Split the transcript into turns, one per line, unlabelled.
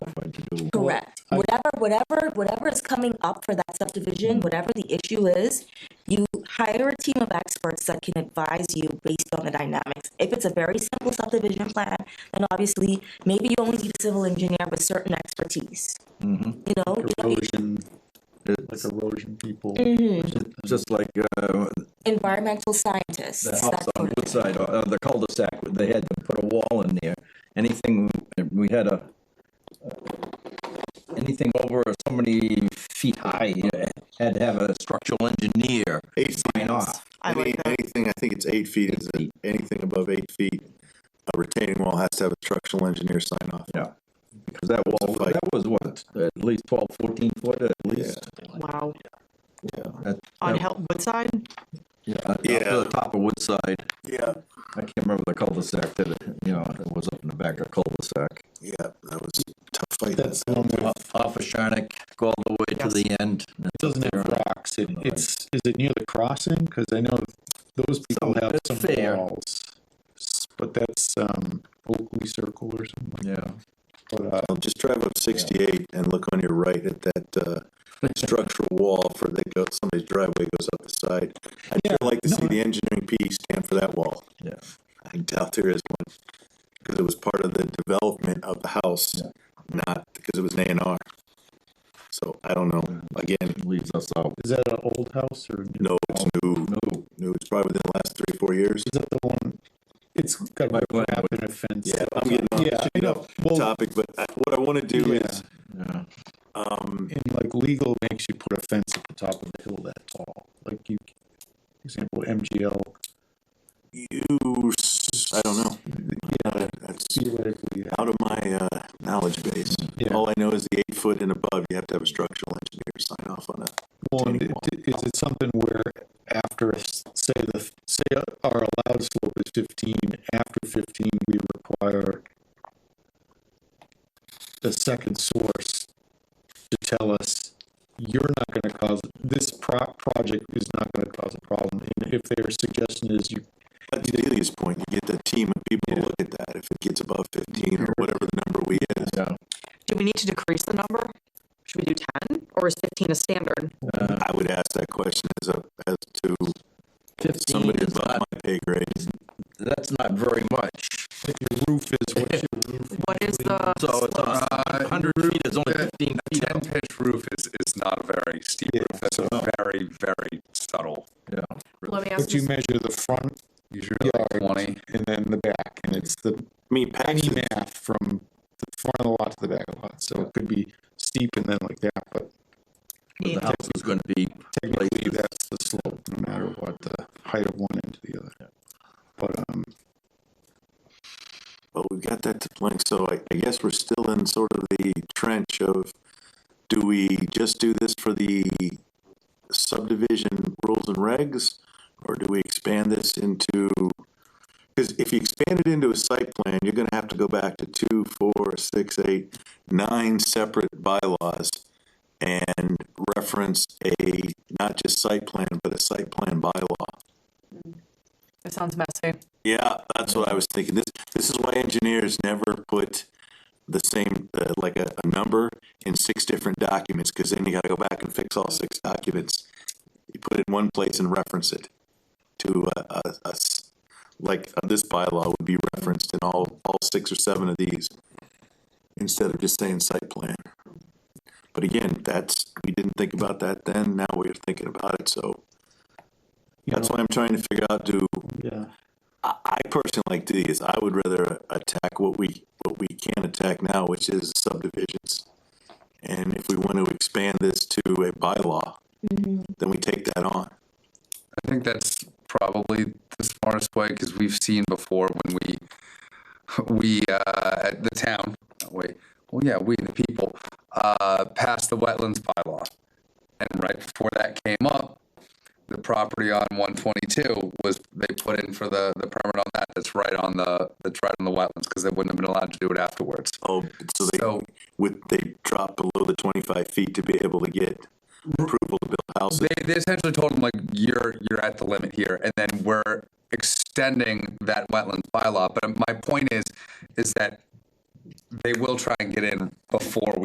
I'm going to do.
Correct.
I-
Whatever, whatever, whatever is coming up for that subdivision, whatever the issue is, you hire a team of experts that can advise you based on the dynamics. If it's a very simple subdivision plan, then obviously, maybe you only need a civil engineer with certain expertise. You know, you don't need
Erosion, like erosion people,
just like uh,
environmental scientists.
the
that
house on
sort of thing.
Woodside, uh, the cul-de-sac, they had to put a wall in there. Anything, we had a, uh, anything over so many feet high, you had to have a structural engineer
Eight feet.
sign off.
I like
Any-
that.
Anything, I think it's eight feet, is it, anything above eight feet, a retaining wall has to have a structural engineer sign off.
Yeah, because that wall,
Like-
that was what, at least twelve, fourteen foot at least.
Wow.
That-
On
that-
Help Woodside?
Yeah, up
Yeah.
to the top of Woodside.
Yeah.
I can't remember the cul-de-sac that, you know, it was up in the back of cul-de-sac.
Yeah, that was a tough fight.
that's the one that
Off of Sharnik, go all the way to
Yes.
the end.
doesn't have rocks, It- it's, is it near the crossing? Cause I know those people have
that's
some
fair.
walls. S- But that's, um, Oakley Circle or something,
Yeah.
but, uh,
Well, Just drive up sixty-eight and look on your right at that, uh, structural wall for they go, somebody's driveway goes up the side. I'd sure like to see the engineering P stand for that wall.
Yeah.
I doubt there is one, because it was part of the development of the house, not because it was an A and R. So I don't know, again,
leaves us out.
is that an old house or? new?
no, it's new,
No,
new, it's probably within the last three, four years.
Is that the one? It's got
Right,
a
right.
wrap and a fence.
Yeah, I'm getting on
Yeah, I know.
the
Well,
topic, but I- what I wanna do
Yeah.
is,
yeah,
um,
and like legal makes you put a fence at the top of the hill that tall, like you, for example, MGL
you, s- I don't know. Uh, That's
theoretically, yeah.
out of my, uh, knowledge base.
Yeah.
All I know is the eight foot and above, you have to have a structural engineer sign off on it.
Well, and
retaining
it- is it something where after, a s- say the, say our allowed slope is fifteen, after fifteen, we require the second source to tell us, you're not gonna cause, this pro- project is not gonna cause a problem, and if their suggestion is you,
But to Delia's point, you get the team of people to look at that, if it gets above fifteen or whatever the number we is.
yeah.
Do we need to decrease the number? Should we do ten or is fifteen a standard?
I would ask that question as a, as to
Fifteen
somebody
is
above
not,
my pay grade.
that's not very much.
like your roof is, what's your roof?
What is the?
So it's a hundred feet is only fifteen
A
feet.
ten pitch roof is, is not a very steep
Yeah,
roof, that's a very, very subtle.
Yeah,
Let me ask
But you
this.
measure the front
Usually like
yard
twenty,
and then the back, and it's the
I mean, Pat's,
any math from the front of the lot to the back of the lot, so it could be steep and then like that, but
but the house is gonna be
technically that's the slope, no matter what the height of one end to the other. But, um,
well, we've got that to blank, so I, I guess we're still in sort of the trench of, do we just do this for the subdivision rules and regs? Or do we expand this into, cause if you expand it into a site plan, you're gonna have to go back to two, four, six, eight, nine separate bylaws. And reference a, not just site plan, but a site plan bylaw.
It sounds messy.
Yeah, that's what I was thinking. This, this is why engineers never put the same, uh, like a, a number in six different documents, cause then you gotta go back and fix all six documents. You put it in one place and reference it to, uh, a, a s- like, uh, this bylaw would be referenced in all, all six or seven of these. Instead of just saying site plan. But again, that's, we didn't think about that then, now we're thinking about it, so.
you
That's
know,
why I'm trying to figure out, do,
yeah,
I I personally like these. I would rather attack what we, what we can attack now, which is subdivisions. And if we want to expand this to a bylaw, then we take that on.
I think that's probably the smartest way, cause we've seen before when we, we, uh, at the town, not we, well, yeah, we, the people, uh, passed the wetlands bylaw. And right before that came up, the property on one twenty-two was, they put in for the, the permit on that, that's right on the, that's right on the wetlands, cause they wouldn't have been allowed to do it afterwards.
Oh, so
So-
they, would, they drop below the twenty-five feet to be able to get approval to build houses.
They, they essentially told him like you're you're at the limit here, and then we're extending that wetlands bylaw. But my point is, is that they will try and get in before we